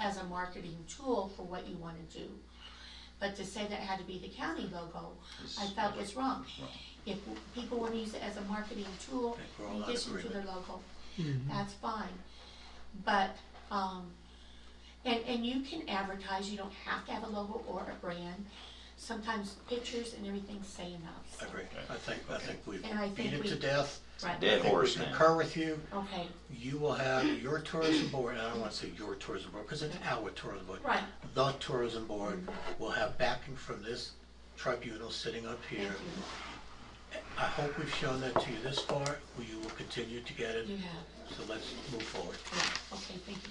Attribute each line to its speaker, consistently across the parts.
Speaker 1: as a marketing tool for what you wanna do. But to say that it had to be the county logo, I felt was wrong. If people wanna use it as a marketing tool
Speaker 2: think we're all
Speaker 1: in
Speaker 2: in
Speaker 1: addition to their
Speaker 2: agreement.
Speaker 1: logo, that's fine. But, um, and, and you can advertise, you don't have to have a logo or a brand. Sometimes pictures and everything say enough,
Speaker 2: I
Speaker 1: so,
Speaker 2: agree. I think, I think we've
Speaker 1: And I
Speaker 2: beat
Speaker 1: think
Speaker 2: it to
Speaker 1: we-
Speaker 2: death.
Speaker 1: right.
Speaker 2: I
Speaker 3: Dead
Speaker 2: think we
Speaker 3: horse now.
Speaker 2: concur with you.
Speaker 1: Okay,
Speaker 2: You will have your tourism board, and I don't want to say your tourism board, because it's our tourism board.
Speaker 1: Right.
Speaker 2: The tourism board will have backing from this tribunal sitting up
Speaker 1: thank
Speaker 2: here.
Speaker 1: you,
Speaker 2: I hope we've shown that to you this far, you will continue to get it,
Speaker 1: you have,
Speaker 2: so let's move forward.
Speaker 1: yeah, okay, thank you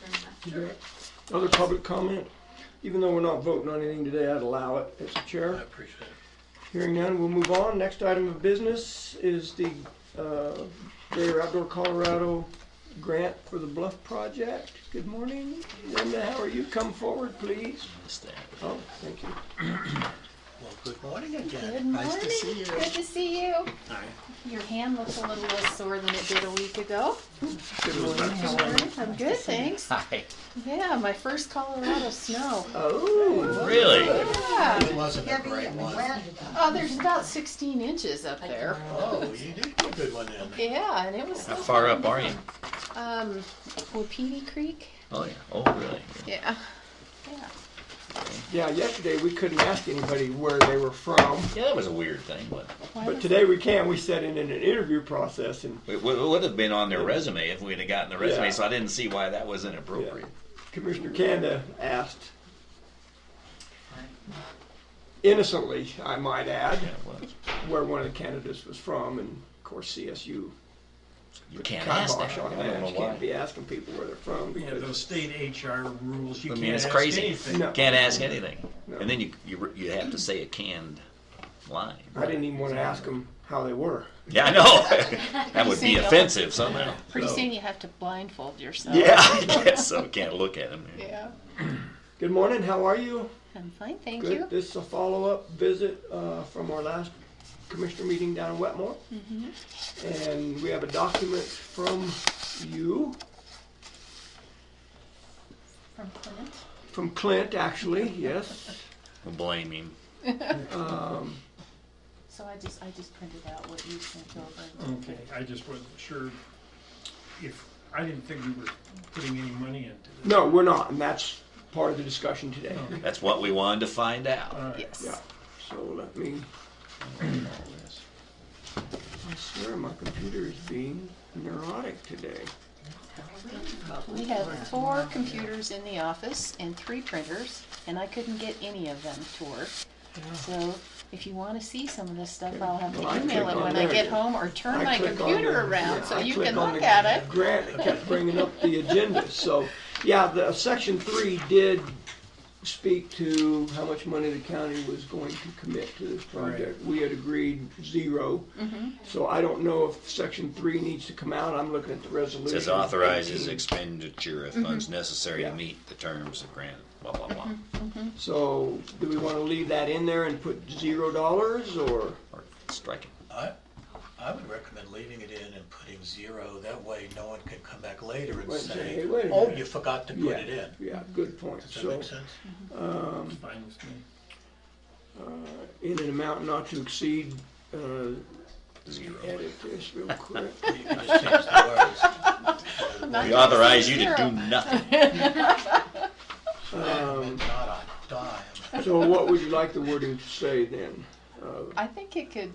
Speaker 1: very much.
Speaker 4: Okay. Other public comment? Even though we're not voting on anything today, I'd allow it as a
Speaker 2: I
Speaker 4: chair.
Speaker 2: appreciate it.
Speaker 4: Hearing none, we'll move on. Next item of business is the uh, Greater Outdoor Colorado Grant for the Bluff Project. Good morning. Linda, how are you? Come forward, please. Oh, thank you.
Speaker 2: Well, good morning again.
Speaker 5: Good morning.
Speaker 2: Nice to see you.
Speaker 5: Good to see you.
Speaker 2: All right.
Speaker 5: Your hand looks a little less sore than it did a week ago.
Speaker 4: Good morning. How are you?
Speaker 5: I'm good, thanks.
Speaker 3: Hi.
Speaker 5: Yeah, my first Colorado snow.
Speaker 4: Oh,
Speaker 3: Really?
Speaker 5: Yeah.
Speaker 2: Wasn't a great one.
Speaker 5: Oh, there's about 16 inches up there.
Speaker 2: Oh, you did get a good one in.
Speaker 5: Yeah, and it was
Speaker 3: How
Speaker 5: so
Speaker 3: far
Speaker 5: fun.
Speaker 3: up are you?
Speaker 5: Um, Wapiti Creek.
Speaker 3: Oh, yeah. Oh, really?
Speaker 5: Yeah. Yeah.
Speaker 4: yeah, yesterday we couldn't ask anybody where they were from,
Speaker 3: Yeah, that was a weird thing, but
Speaker 5: Why
Speaker 4: but
Speaker 5: was-
Speaker 4: today we can. We set in an interview process and
Speaker 3: it would, it would have been on their resume if we'd have gotten the resume,
Speaker 4: Yeah.
Speaker 3: so I didn't see why that was inappropriate.
Speaker 4: Commissioner Kanda asked innocently, I might add,
Speaker 3: Yeah, it was.
Speaker 4: where one of the candidates was from, and of course CSU.
Speaker 3: You
Speaker 4: put
Speaker 3: can't
Speaker 4: the
Speaker 3: ask that.
Speaker 4: kibosh on
Speaker 3: I don't know
Speaker 4: You can't
Speaker 3: why.
Speaker 4: be asking people where they're from
Speaker 6: Yeah, those
Speaker 4: because,
Speaker 6: state HR rules, you
Speaker 3: I mean,
Speaker 6: can't
Speaker 3: it's
Speaker 6: ask
Speaker 3: crazy.
Speaker 6: anything.
Speaker 4: No.
Speaker 3: Can't ask anything.
Speaker 4: No.
Speaker 3: And then you, you re- you have to say a canned line.
Speaker 4: I didn't even want to ask them how they were.
Speaker 3: Yeah, I know. that would be
Speaker 5: Same.
Speaker 3: offensive somehow.
Speaker 5: Pretty
Speaker 3: so.
Speaker 2: Oh.
Speaker 5: soon you have to blindfold yourself.
Speaker 3: Yeah, I guess so. Can't look at them.
Speaker 5: Yeah.
Speaker 4: Good morning, how are you?
Speaker 5: I'm fine, thank
Speaker 4: Good,
Speaker 5: you.
Speaker 4: this is a follow-up visit uh, from our last commissioner meeting down in Wetmore.
Speaker 5: Mm-hmm.
Speaker 4: And we have a document from you,
Speaker 5: From Clint.
Speaker 4: from Clint, actually, yes.
Speaker 3: Blame him.
Speaker 5: So I just I just printed out what you sent over.
Speaker 6: Okay, I just wasn't sure if, I didn't think we were putting any money into this.
Speaker 4: No, we're not, and that's part of the discussion today.
Speaker 3: That's what we wanted to find out.
Speaker 6: All right.
Speaker 5: Yes.
Speaker 4: Yeah, so let me, I swear my computer is being neurotic today.
Speaker 5: We have four computers in the office and three printers, and I couldn't get any of them to work. So if you wanna see some of this stuff, I'll have
Speaker 4: Well, I
Speaker 5: to email
Speaker 4: click
Speaker 5: it
Speaker 4: on
Speaker 5: when I
Speaker 4: there.
Speaker 5: get home or turn
Speaker 4: I
Speaker 5: my
Speaker 4: click on
Speaker 5: computer
Speaker 4: the-
Speaker 5: around
Speaker 4: yeah,
Speaker 5: so
Speaker 4: I
Speaker 5: you
Speaker 4: click
Speaker 5: can
Speaker 4: on
Speaker 5: look
Speaker 4: the
Speaker 5: at it.
Speaker 4: Grant it kept bringing up the agenda, so, yeah, the, uh, section three did speak to how much money the county was going to commit to this project. We had agreed zero,
Speaker 5: Mm-hmm.
Speaker 4: so I don't know if section three needs to come out, I'm looking at the resolution.
Speaker 3: Says authorizes
Speaker 4: 18.
Speaker 3: expenditure of
Speaker 5: Mm-hmm.
Speaker 3: funds necessary
Speaker 4: Yeah.
Speaker 3: to meet the terms of grant, blah, blah, blah.
Speaker 5: Mm-hmm.
Speaker 4: So, do we wanna leave that in there and put zero dollars, or?
Speaker 3: Or strike it.
Speaker 2: I, I would recommend leaving it in and putting zero, that way no one can come back later and
Speaker 4: Wait,
Speaker 2: say,
Speaker 4: hey, wait a
Speaker 2: oh,
Speaker 4: minute."
Speaker 2: you forgot to
Speaker 4: Yeah,
Speaker 2: put it in.
Speaker 4: Yeah, good point.
Speaker 2: Does that
Speaker 4: So,
Speaker 2: make sense?
Speaker 6: It's fine with me.
Speaker 4: in an amount not to exceed, uh,
Speaker 3: Zero.
Speaker 4: edit this real quick.
Speaker 2: You can just change the words.
Speaker 3: We authorize you to do nothing.
Speaker 2: Um, Not on dime.
Speaker 4: So what would you like the wording to say then? Uh,
Speaker 5: I think it could,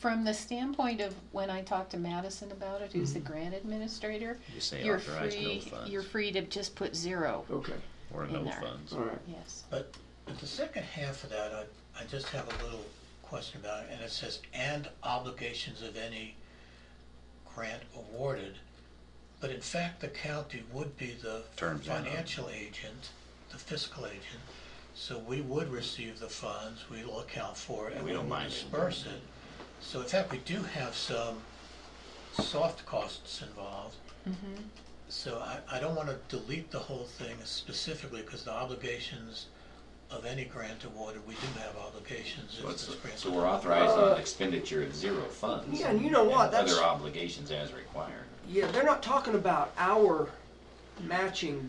Speaker 5: from the standpoint of when I talked to Madison about it, who's the
Speaker 4: Mm-hmm.
Speaker 5: grant administrator,
Speaker 3: You say
Speaker 5: you're
Speaker 3: authorize no
Speaker 5: free, you're
Speaker 3: funds
Speaker 5: free to just put zero,
Speaker 4: Okay,
Speaker 3: or
Speaker 5: in
Speaker 3: no
Speaker 5: there.
Speaker 3: funds.
Speaker 4: all right.
Speaker 5: yes.
Speaker 2: But but the second half of that, I, I just have a little question about it, and it says, and obligations of any grant awarded. But in fact, the county would be the
Speaker 3: Terms and-
Speaker 2: financial agent, the fiscal agent, so we would receive the funds, we'll account for it, and
Speaker 3: We
Speaker 2: we
Speaker 3: don't
Speaker 2: will
Speaker 3: mind it.
Speaker 2: disperse it. So in fact, we do have some soft costs involved. So I, I don't wanna delete the whole thing specifically, cause the obligations of any grant awarded, we do have obligations if this grant.
Speaker 7: So we're authorizing expenditure of zero funds.
Speaker 4: Yeah, and you know what,
Speaker 7: and
Speaker 4: that's-
Speaker 7: Other obligations as required.
Speaker 4: Yeah, they're not talking about our matching